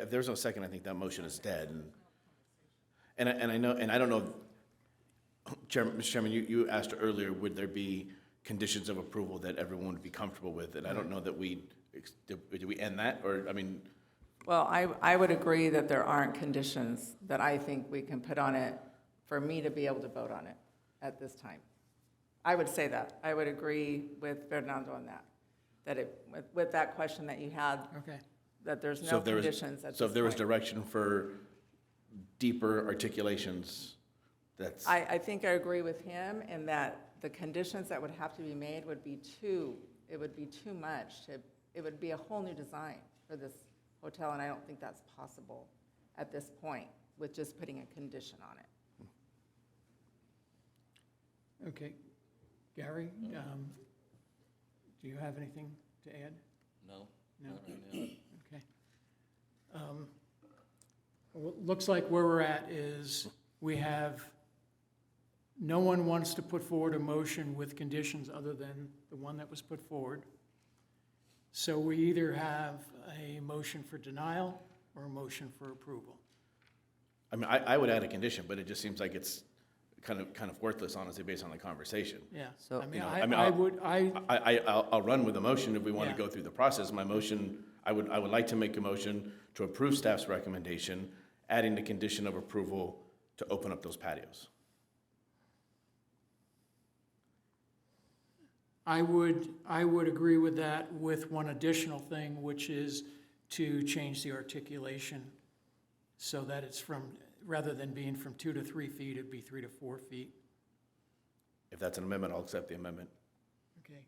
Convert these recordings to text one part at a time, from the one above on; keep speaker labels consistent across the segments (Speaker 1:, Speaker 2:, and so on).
Speaker 1: if there's no second, I think that motion is dead. And- And, I- and I know, and I don't know, Chairman, Mr. Chairman, you, you asked earlier, would there be conditions of approval that everyone would be comfortable with? And I don't know that we, ex- did did we end that, or, I mean,
Speaker 2: Well, I, I would agree that there aren't conditions that I think we can put on it for me to be able to vote on it at this time. I would say that. I would agree with Fernando on that, that it, with, with that question that you had,
Speaker 3: Okay.
Speaker 2: that there's
Speaker 1: so
Speaker 2: no
Speaker 1: if there was.
Speaker 2: conditions at
Speaker 1: So if there was
Speaker 2: this point.
Speaker 1: direction for deeper articulations, that's,
Speaker 2: I, I think I agree with him in that the conditions that would have to be made would be too, it would be too much. to- It would be a whole new design for this hotel, and I don't think that's possible at this point with just putting a condition on it.
Speaker 3: Okay. Gary, um, do you have anything to add?
Speaker 4: No,
Speaker 3: No?
Speaker 4: not right now.
Speaker 3: Okay. Um, well, it Looks like where we're at is we have, no one wants to put forward a motion with conditions other than the one that was put forward. So we either have a motion for denial or a motion for approval.
Speaker 1: I mean, I, I would add a condition, but it just seems like it's kind of, kind of worthless, honestly, based on the conversation.
Speaker 3: Yeah.
Speaker 5: So,
Speaker 3: I
Speaker 1: you
Speaker 3: mean,
Speaker 1: know, I mean,
Speaker 3: I, I
Speaker 1: I'll-
Speaker 3: would, I,
Speaker 1: I, I, I'll, I'll run with a motion if we want to
Speaker 3: Yeah.
Speaker 1: go through the process. My motion, I would, I would like to make a motion to approve staff's recommendation, adding the condition of approval to open up those patios.
Speaker 3: I would, I would agree with that with one additional thing, which is to change the articulation so that it's from, rather than being from two to three feet, it'd be three to four feet.
Speaker 1: If that's an amendment, I'll accept the amendment.
Speaker 3: Okay,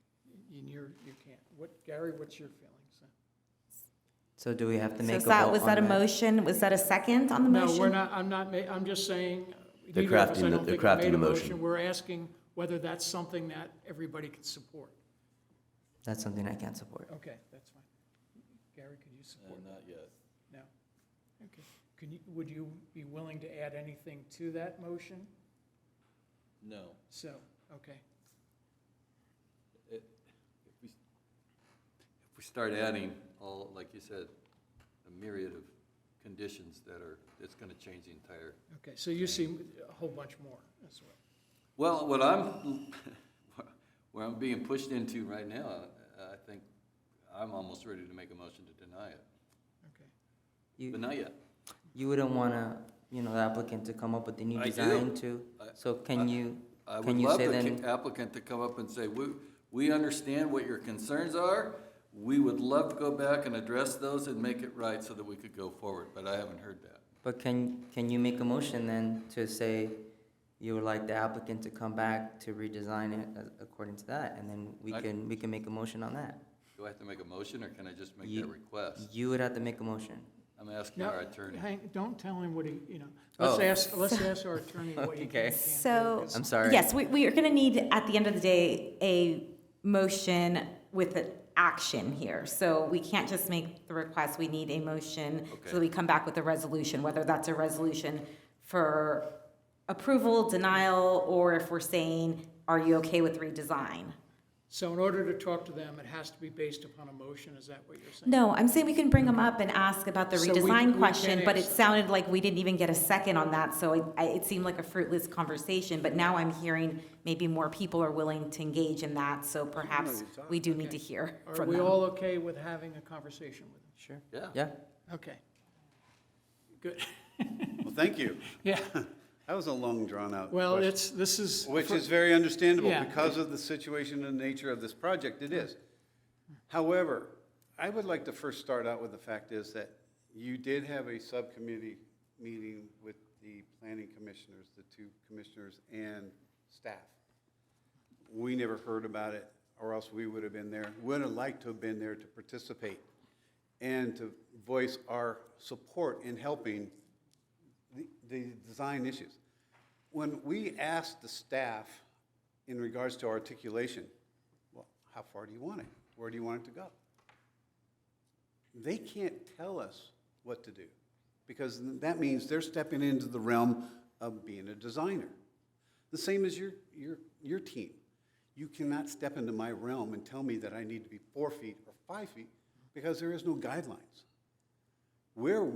Speaker 3: and you're, you can't, what, Gary, what's your feelings?
Speaker 5: so do we have to
Speaker 6: So
Speaker 5: make a
Speaker 6: is
Speaker 5: vote
Speaker 6: that, was
Speaker 5: on
Speaker 6: that a motion? Was that a second on the
Speaker 3: No,
Speaker 6: motion?
Speaker 3: we're not, I'm not, ma- I'm just saying.
Speaker 7: They're
Speaker 3: neither of us,
Speaker 7: crafting
Speaker 3: I
Speaker 7: the-
Speaker 3: don't
Speaker 7: they're
Speaker 3: think, have
Speaker 7: crafting
Speaker 3: made a
Speaker 7: the motion.
Speaker 3: We're asking whether that's something that everybody can support.
Speaker 5: That's something I can't support.
Speaker 3: Okay, that's fine. Gary, could you support?
Speaker 4: Uh, Not yet.
Speaker 3: No. Okay. Can you, would you be willing to add anything to that motion?
Speaker 4: No.
Speaker 3: So, okay.
Speaker 4: If we start adding all, like you said, a myriad of conditions that are, that's going to change the entire.
Speaker 3: Okay, so you see a whole bunch more as well.
Speaker 4: Well, what I'm, where I'm being pushed into right now, I think I'm almost ready to make a motion to deny it,
Speaker 3: Okay.
Speaker 4: but
Speaker 5: You,
Speaker 4: not yet.
Speaker 5: you wouldn't want to, you know, the applicant to come up with the new
Speaker 4: I
Speaker 5: design
Speaker 4: do.
Speaker 5: too?
Speaker 4: I-
Speaker 5: So can you,
Speaker 4: I would
Speaker 5: can you
Speaker 4: love
Speaker 5: say
Speaker 4: the
Speaker 5: then,
Speaker 4: ca- applicant to come up and say, we, we understand what your concerns are. We would love to go back and address those and make it right so that we could go forward, but I haven't heard that.
Speaker 5: but can, can you make a motion then to say you would like the applicant to come back to redesign it a- according to that? And then we
Speaker 4: I-
Speaker 5: can, we can make a motion on that.
Speaker 4: Do I have to make a motion, or can I just make
Speaker 5: You-
Speaker 4: that request?
Speaker 5: You would have to make a motion.
Speaker 4: I'm asking
Speaker 3: No,
Speaker 4: our attorney.
Speaker 3: Hang, don't tell him what he, you know, let's
Speaker 5: Oh.
Speaker 3: ask, let's ask our attorney what he can
Speaker 5: Okay.
Speaker 3: and can't do.
Speaker 6: So.
Speaker 3: 'cause-
Speaker 5: I'm sorry.
Speaker 6: Yes, we, we are gonna need, at the end of the day, a motion with an action here. So we can't just make the request, we need a motion so
Speaker 4: Okay.
Speaker 6: that we come back with a resolution, whether that's a resolution for approval, denial, or if we're saying, are you okay with redesign?
Speaker 3: So in order to talk to them, it has to be based upon a motion, is that what you're saying?
Speaker 6: No, I'm saying we can bring them up and ask about the
Speaker 3: So we- we
Speaker 6: redesign question,
Speaker 3: can
Speaker 6: but it
Speaker 3: ask-
Speaker 6: sounded like we didn't even get a second on that, so it, I- it seemed like a fruitless conversation, but now I'm hearing maybe more people are willing to engage in that, so perhaps we do need to hear
Speaker 3: Are
Speaker 6: from
Speaker 3: we
Speaker 6: them.
Speaker 3: all okay with having a conversation with them?
Speaker 5: Sure.
Speaker 4: Yeah.
Speaker 5: Yeah,
Speaker 3: Okay. Good,
Speaker 8: Well, thank you.
Speaker 3: yeah,
Speaker 8: That was a long, drawn-out
Speaker 3: well,
Speaker 8: question,
Speaker 3: it's, this is,
Speaker 8: Which is very understandable
Speaker 3: Yeah.
Speaker 8: because of the situation and nature of this project, it is. However, I would like to first start out with the fact is that you did have a subcommittee meeting with the planning commissioners, the two commissioners and staff. We never heard about it, or else we would have been there, would have liked to have been there to participate and to voice our support in helping the, the design issues. When we asked the staff in regards to articulation, well, how far do you want it? Where do you want it to go? They can't tell us what to do, because that means they're stepping into the realm of being a designer. The same as your, your, your team. You cannot step into my realm and tell me that I need to be four feet or five feet, because there is no guidelines. We're